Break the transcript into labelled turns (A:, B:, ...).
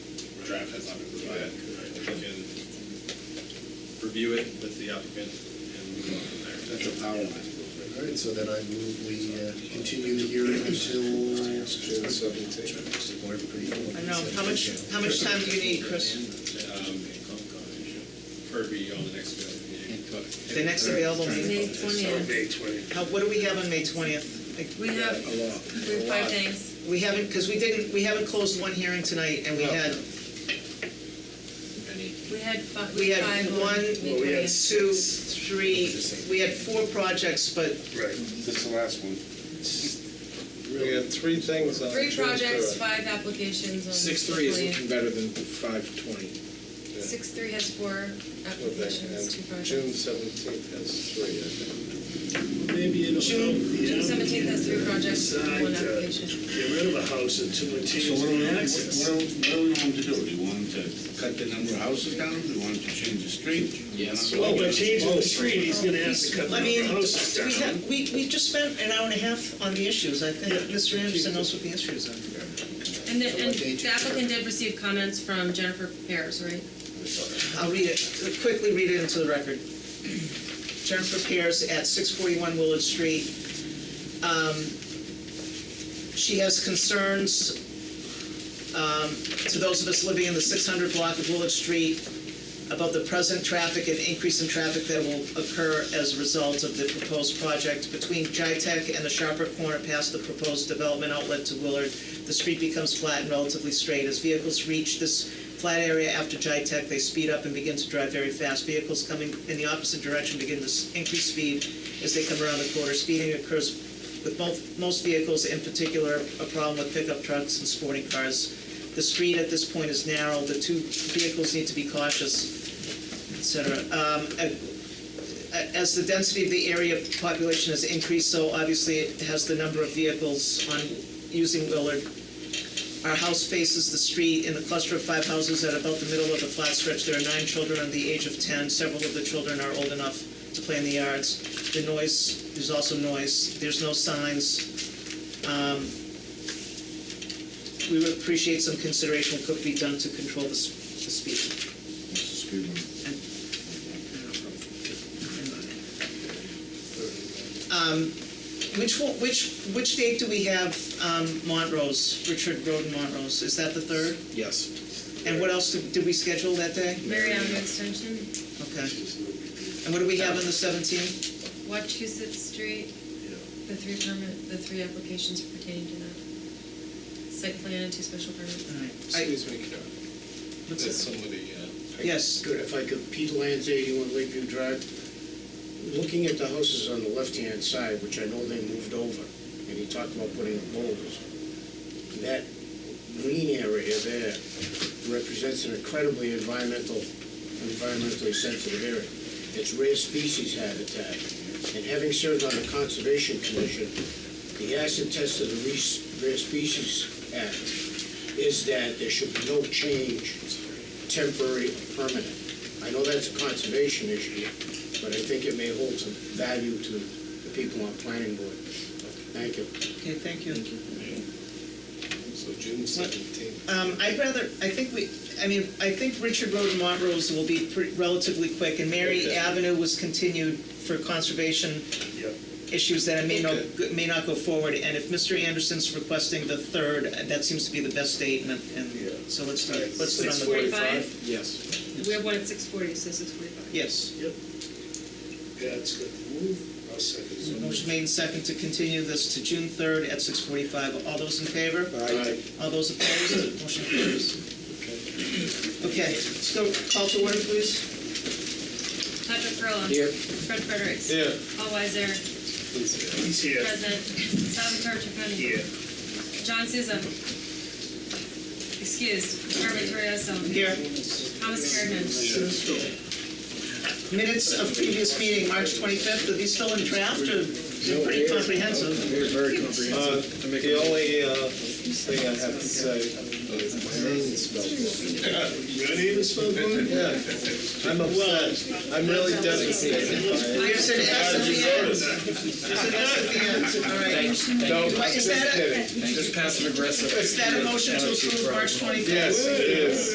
A: draft has not been provided. We can review it with the applicant and move on from there.
B: That's a power line. All right, so then I move we uh, continue the hearing until. June seventeenth.
C: I know, how much, how much time do you need, Chris?
A: Um, Or be on the next available meeting.
C: The next available
D: May
C: meeting,
D: twentieth.
C: how, what do we have on May twentieth?
D: We have, we have five things.
C: We haven't, because we didn't, we haven't closed one hearing tonight, and we had,
D: We had five.
C: we had
D: five on
C: one,
D: May
E: we had
D: 20th.
C: two, three, we had four projects, but
E: Right, this is the last one.
F: We got three things on.
D: Three
F: June
D: projects,
F: third.
D: five applications on.
F: Six three is
D: the
F: looking
D: 20th.
F: better than five twenty.
D: Six three has four applications, two
F: June
D: projects.
F: seventeenth has three, I think.
E: Maybe it'll
C: June-
E: help the
D: June seventeenth has three projects,
E: Decide
D: one
E: to-
D: application.
E: Get rid of a house until it
G: So
E: changes
G: what do we,
E: the
G: what
E: access.
G: what do we want to do? Do you want to cut the number of houses down? Do you want to change the street? Oh, Yes.
E: Well, by changing the street, he's gonna have to cut the
C: I
E: number
C: mean,
E: of houses
C: we,
E: down.
C: ha- we, we just spent an hour and a half on the issues, I think Mr. Anderson knows what the issues are.
D: And the, and the applicant did receive comments from Jennifer Pears, right?
C: I'll read it, quickly read it into the record. Jennifer Pierce at 641 Willard Street. Um, She has concerns, um, to those of us living in the 600 block of Willard Street, about the present traffic and increase in traffic that will occur as a result of the proposed project. Between Jitec and the sharper corner past the proposed development outlet to Willard, the street becomes flat and relatively straight. As vehicles reach this flat area after Jitec, they speed up and begin to drive very fast. Vehicles coming in the opposite direction begin to s- increase speed as they come around the corner. Speeding occurs with both, most vehicles, in particular, a problem with pickup trucks and sporting cars. The street at this point is narrow, the two vehicles need to be cautious et cetera. Um, a- a- As the density of the area population has increased, so obviously it has the number of vehicles on, using Willard. Our house faces the street in the cluster of five houses at about the middle of the flat stretch. There are nine children under the age of 10. Several of the children are old enough to play in the yards. The noise, there's also noise. There's no signs. Um, We would appreciate some consideration what could be done to control the s- the speed. Um, Which, one- which, which date do we have um, Montrose, Richard Road and Montrose? Is that the third?
F: Yes.
C: And what else did did we schedule that day?
D: Mariana Extension,
C: Okay. And what do we have on the 17th?
D: Wachusett Street, the three permit, the three applications pertaining to that. Site plan and two special permits.
C: All right. I-
F: Excuse me, Karen.
C: what's
F: That's
C: it?
F: somebody, uh,
C: Yes,
H: Good, if I could, Pete Lands, 81 Lakeview Drive. Looking at the houses on the left-hand side, which I know they moved over, and he talked about putting up boulders, that green area there represents an incredibly environmental, environmentally sensitive area. It's rare species habitat. And having served on the Conservation Commission, the acid test of the Re- Rare Species Act is that there should be no change temporary or permanent. I know that's a conservation issue, but I think it may hold some value to the people on planning board. Thank you.
C: okay, thank you.
F: so June seventeenth.
C: Um, I'd rather, I think we, I mean, I think Richard Road and Montrose will be pre- relatively quick, and Mary
F: Okay.
C: Avenue was continued for conservation
E: Yep.
C: issues that may not,
F: Okay.
C: may not go forward, and if Mr. Anderson's requesting the third, that seems to be the best date, and, and so let's, do it. let's put it on the board.
D: Forty-five,
F: Yes.
D: we have one at six forty, so six forty-five.
C: Yes.
E: Yeah, it's good. Move, I'll second
C: So
E: it.
C: Motion made and second to continue this to June 3rd at 6:45. All those in favor? All those opposed? Motion carries. Okay, let's go, call to order, please.
D: Patrick Perla. Fred Fredericks.
F: Here.
D: Paul Weiser,
E: He's here.
D: present. Salvatore Chaconi.
E: Here.
D: John Souza. Excused. Carmen Torriello.
C: Here.
D: Thomas Kerrigan.
C: Minutes of previous meeting, March 25th, are these still in draft, or they're pretty comprehensive?
F: Uh, The only, uh, thing I have to say. My name is spelled
E: Your name is spelled wrong?
F: wrong. Yeah, I'm upset. I'm really devastated by it.
C: There's an S at the end. There's an S at the end, all right.
F: No,
C: What, is
F: just
C: that a-
F: kidding.
G: Just passive aggressive.
C: Is that a motion to approve March 25th?
F: Yes, it is.